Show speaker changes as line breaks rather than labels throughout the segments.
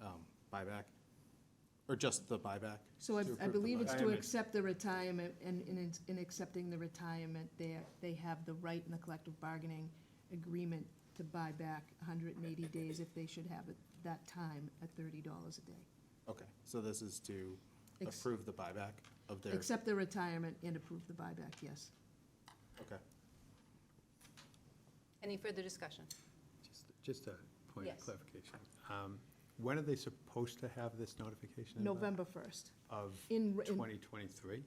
um, buyback? Or just the buyback?
So I,
To
I
approve the
believe it's to
buyback.
accept the retirement, and in, its- in accepting the retirement, they, they have the right in the collective bargaining agreement to buy back hundred and eighty days if they should have it that time at thirty dollars a day.
Okay, so this is to
Ex-
approve the buyback of their,
Accept the retirement and approve the buyback, yes.
okay.
Any further discussion?
Just- Just a point of
Yes.
clarification. Um, When are they supposed to have this notification? in
uh,
the-
November first,
Of
in, in,
2023?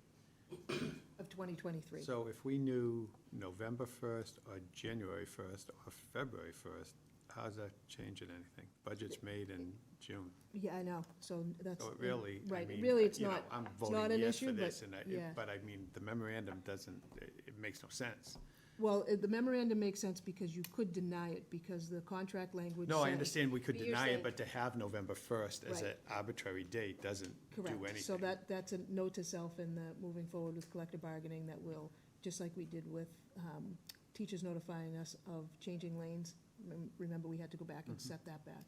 of twenty twenty-three.
So if we knew November 1st or January 1st or February 1st, how's that changing anything? Budget's made in June.
Yeah, I know, so that's.
Oh,
So it really, I
Right,
mean,
really, it's
you know,
not-
I'm
not an
voting yes
issue,
for
but-
this, and I,
yeah.
it- but I mean, the memorandum doesn't, it it makes no sense.
Well, it- the memorandum makes sense because you could deny it, because the contract language.
No, I
said-
understand we could
But you're
deny
saying-
it, but to have November 1st as an
Right.
arbitrary date doesn't do anything.
Correct, so that, that's a note to self in the, moving forward with collective bargaining that will, just like we did with um, teachers notifying us of changing lanes. Rem- Remember, we had to go back and
Mm-hmm.
set that back.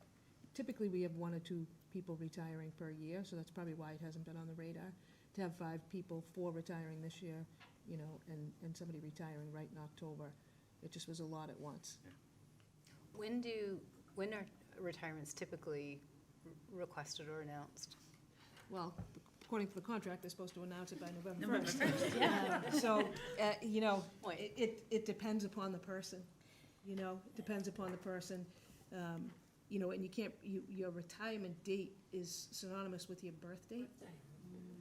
Typically, we have one or two people retiring per year, so that's probably why it hasn't been on the radar. To have five people, four retiring this year, you know, and, and somebody retiring right in October, it just was a lot at once.
When do, when are retirements typically r- requested or announced?
Well, according to the contract, they're supposed to announce it by November first. So, uh, you know,
Point.
it, it- it depends upon the person, you know, it depends upon the person. Um, You know, and you can't, you, your retirement date is synonymous with your birth date.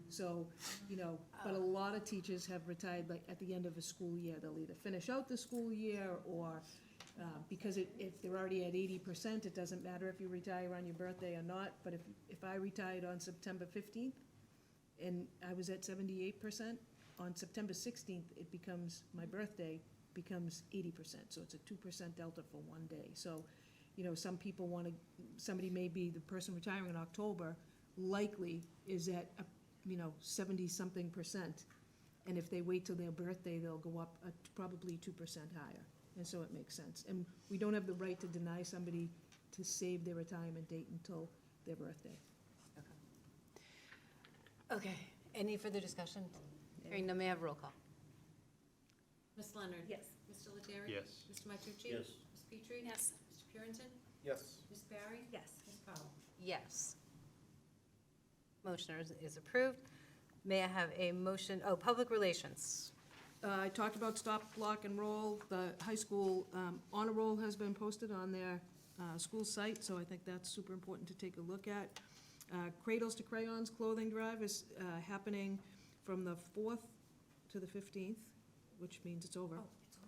So, you know, but a lot of teachers have retired like at the end of a school year. They'll either finish out the school year or, uh, because it, if they're already at eighty percent, it doesn't matter if you retire on your birthday or not. But if, if I retired on September fifteenth and I was at seventy-eight percent, on September sixteenth, it becomes, my birthday becomes eighty percent. So it's a two percent delta for one day. So, you know, some people want to, somebody may be, the person retiring in October likely is at, a you know, seventy-something percent. And if they wait till their birthday, they'll go up uh, probably two percent higher. And so it makes sense. And we don't have the right to deny somebody to save their retirement date until their birthday.
Okay, any further discussion? Hearing none, may I have roll call?
Ms. Leonard?
Yes.
Mr. Lettieri?
Yes.
Mr. Matucci?
Yes.
Ms. Petrie?
Yes.
Mr. Purinton?
Yes.
Ms. Barry?
Yes.
Ms. Powell?
Yes. Motion is- is approved. May I have a motion, oh, public relations.
Uh, I talked about stop, block, and roll. The high school um, honor roll has been posted on their uh, school site, so I think that's super important to take a look at. Uh, Cradles to Crayons clothing drive is uh, happening from the 4th to the 15th, which means it's over.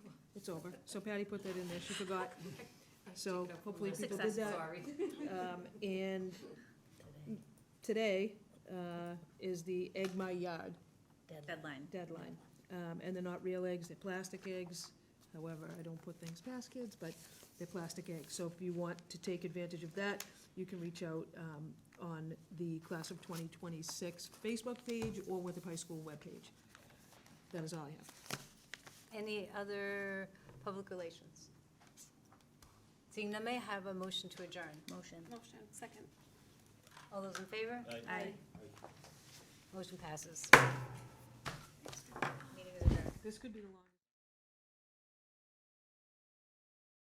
Oh, It's over. So Patty put that in there, she forgot. So hopefully people did that. Um, And today uh, is the Egg My Yard
Deadline.
deadline. Um, And they're not real eggs, they're plastic eggs. However, I don't put things past kids, but they're plastic eggs. So if you want to take advantage of that, you can reach out um, on the Class of 2026 Facebook page or with the high school webpage. That is all I have.
Any other public relations? Seeing none, may I have a motion to adjourn?
Motion.
Motion, second.
All those in favor?
Aye.
Motion passes. Meeting is adjourned.
This could be the long.